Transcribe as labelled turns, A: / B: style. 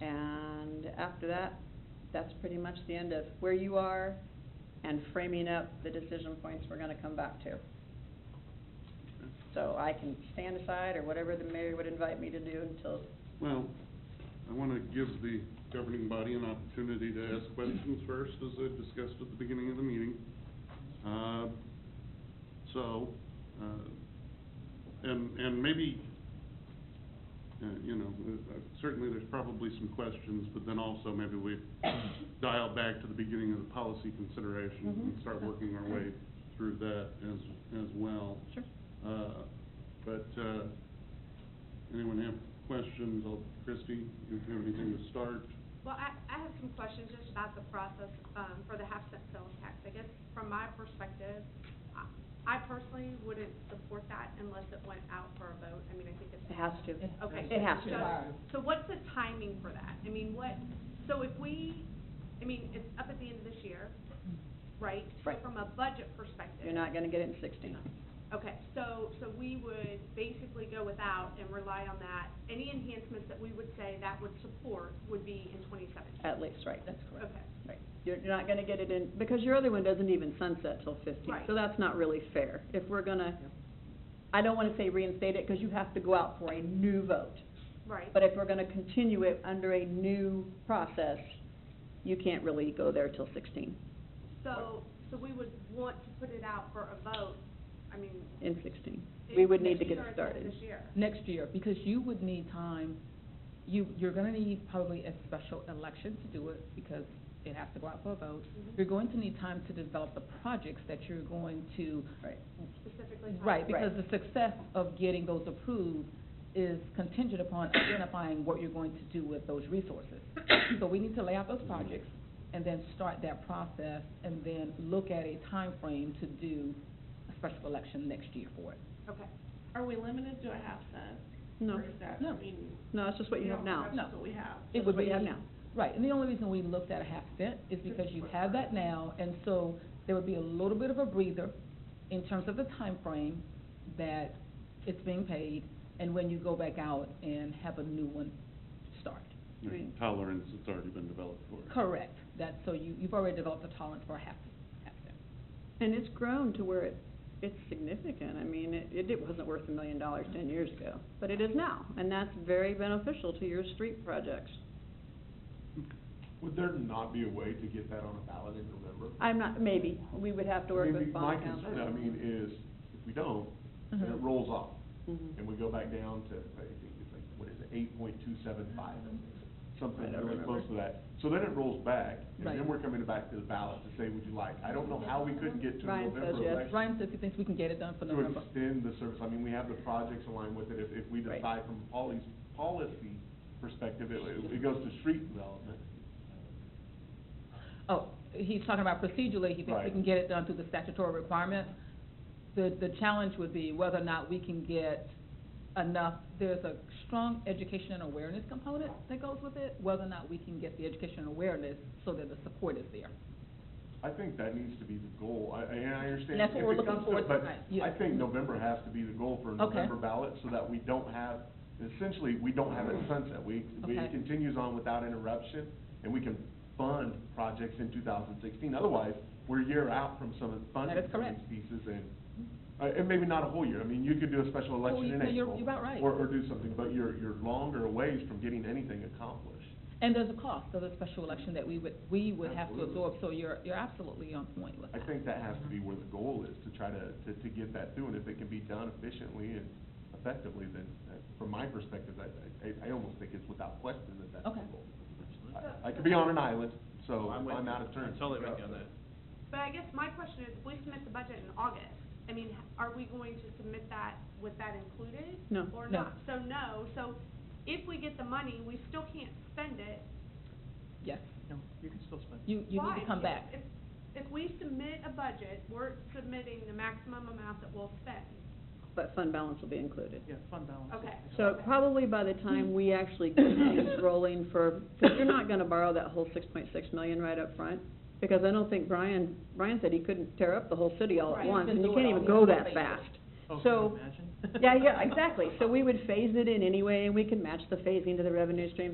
A: And after that, that's pretty much the end of where you are and framing up the decision points we're gonna come back to. So I can stand aside or whatever the mayor would invite me to do until,
B: Well, I wanna give the governing body an opportunity to ask questions first, as I discussed at the beginning of the meeting. Uh, So, uh, and, and maybe, uh, you know, uh, certainly there's probably some questions, but then also maybe we dial back to the beginning of the policy considerations and
A: Mhm.
B: start working our way through that as, as well.
A: sure,
B: Uh, But, uh, anyone have questions? I'll- Christie, you have anything to start?
C: Well, I, I have some questions just about the process, um, for the half cent sales tax. I guess from my perspective, I- I personally wouldn't support that unless it went out for a vote. I mean, I think it's.
A: it has to.
C: Okay.
A: It has to.
C: So so what's the timing for that? I mean, what, so if we, I mean, it's up at the end of this year, right? So
A: Right.
C: From a budget perspective.
A: You're not gonna get it in sixteen.
C: Okay, so, so we would basically go without and rely on that. Any enhancements that we would say that would support would be in twenty seventeen.
A: At least, right, that's correct.
C: Okay.
A: Right. You're, you're not gonna get it in, because your other one doesn't even sunset till fifteen,
C: Right.
A: so that's not really fair. If we're gonna, I don't wanna say reinstate it, because you have to go out for a new vote.
C: Right.
A: But if we're gonna continue it under a new process, you can't really go there till sixteen,
C: So, so we would want to put it out for a vote, I mean.
A: in sixteen. We would need to get
C: sure
A: it
C: it's not
A: started.
C: This year.
D: next year, because you would need time, you, you're gonna need probably a special election to do it, because it has to go out for a vote.
C: Mhm.
D: You're going to need time to develop the projects that you're going to,
A: Right.
C: Specifically. talking
D: right,
C: about-
D: because the success of getting those approved is contingent upon identifying what you're going to do with those resources. So we need to lay out those projects, and then start that process, and then look at a time frame to do a special election next year for it.
C: Okay,
E: Are we limited to a half cent?
A: No,
E: Or is that,
D: No.
E: I mean?
A: no, it's just what you have now.
D: No.
E: That's what we have.
D: It
A: That's
D: would
A: what you have
D: be-
A: now.
D: Right, and the only reason we looked at a half cent is because you have that now, and so there would be a little bit of a breather in terms of the time frame that it's being paid, and when you go back out and have a new one start.
B: There's a tolerance that's already been developed for it.
D: Correct, that's, so you, you've already developed a tolerance for a half, half cent.
A: And it's grown to where it, it's significant. I mean, it- it, it wasn't worth a million dollars ten years ago, but it is now, and that's very beneficial to your street projects.
F: Would there not be a way to get that on a ballot in November?
A: I'm not, maybe, we would have to work
F: Maybe
A: with bond
F: My concern, I
A: council.
F: mean, is if we don't, then it
A: Mm-hmm.
D: Mhm.
F: rolls off,
A: Mhm.
F: and we go back down to, I think it's like, what is it, eight point two seven five?
A: I
F: Something
A: don't
F: really
A: remember.
F: close to that. So then it rolls back, and
D: Right.
F: then we're coming back to the ballot to say, would you like? I don't know how we couldn't get to a
A: Ryan says
F: November
A: yes.
F: election.
D: Ryan says he thinks we can get it done for
F: To
D: November.
F: extend the service, I mean, we have the projects aligned with it, if, if we
A: Right.
F: decide from Polly's policy perspective, it, it goes to street development.
D: Oh, he's talking about procedurally, he thinks we
F: Right.
D: can get it done through the statutory requirements. The, the challenge would be whether or not we can get enough, there's a strong education and awareness component that goes with it, whether or not we can get the education and awareness so that the support is there.
F: I think that needs to be the goal, I, I- and I understand.
D: And that's what
F: if
D: we're
F: it
D: looking
F: comes
D: forward
F: to-
D: to tonight,
F: But
D: yeah.
F: I think November has to be the goal for a
D: Okay.
F: November ballot, so that we don't have, essentially, we don't have it sunset. We, we
D: Okay.
F: it continues on without interruption, and we can fund projects in two thousand sixteen. Otherwise, we're a year out from some of the funding.
D: That is
F: for
D: correct.
F: These pieces, and, uh, and maybe not a whole year, I mean, you could do a special
D: Well,
F: election in
D: you-
F: April.
D: you're- you're about right.
F: Or, or do something, but you're, you're longer a ways from getting anything accomplished.
D: And there's a cost of the special election that we would, we would have to
F: Absolutely.
D: absorb, so you're, you're absolutely on point with
F: I
D: that.
F: think that has to be where the goal is, to try to, to, to get that through, and if it can be done efficiently and effectively, then, uh, from my perspective, I, I, I almost think it's without question that that's the
D: Okay.
F: goal. I, I could be on an island, so I'm
G: I'm with you.
F: out of turn.
G: I'm totally with you on that.
C: but I guess my question is, if we submit the budget in August, I mean, h- are we going to submit that with that included?
A: No.
C: Or
D: No.
C: not? So no, so if we get the money, we still can't spend it.
D: Yes,
G: No, you can still spend.
D: you, you need
C: Why?
D: to come
C: If-
D: back.
C: If, if we submit a budget, we're submitting the maximum amount that we'll spend.
A: But fund balance will be included.
G: Yeah, fund balance.
C: Okay.
A: So probably by the time we actually get things rolling for, because you're not gonna borrow that whole six point six million right up front, because I don't think Brian, Brian said he couldn't tear up the whole city all at
D: Right.
A: once, and you
D: Do it
A: can't
D: all
A: even
D: in
A: go
D: one
A: that
D: phase.
A: fast.
G: Oh, can
A: So-
G: you imagine?
A: Yeah, yeah, exactly. So we would phase it in anyway, and we can match the phasing to the revenue streams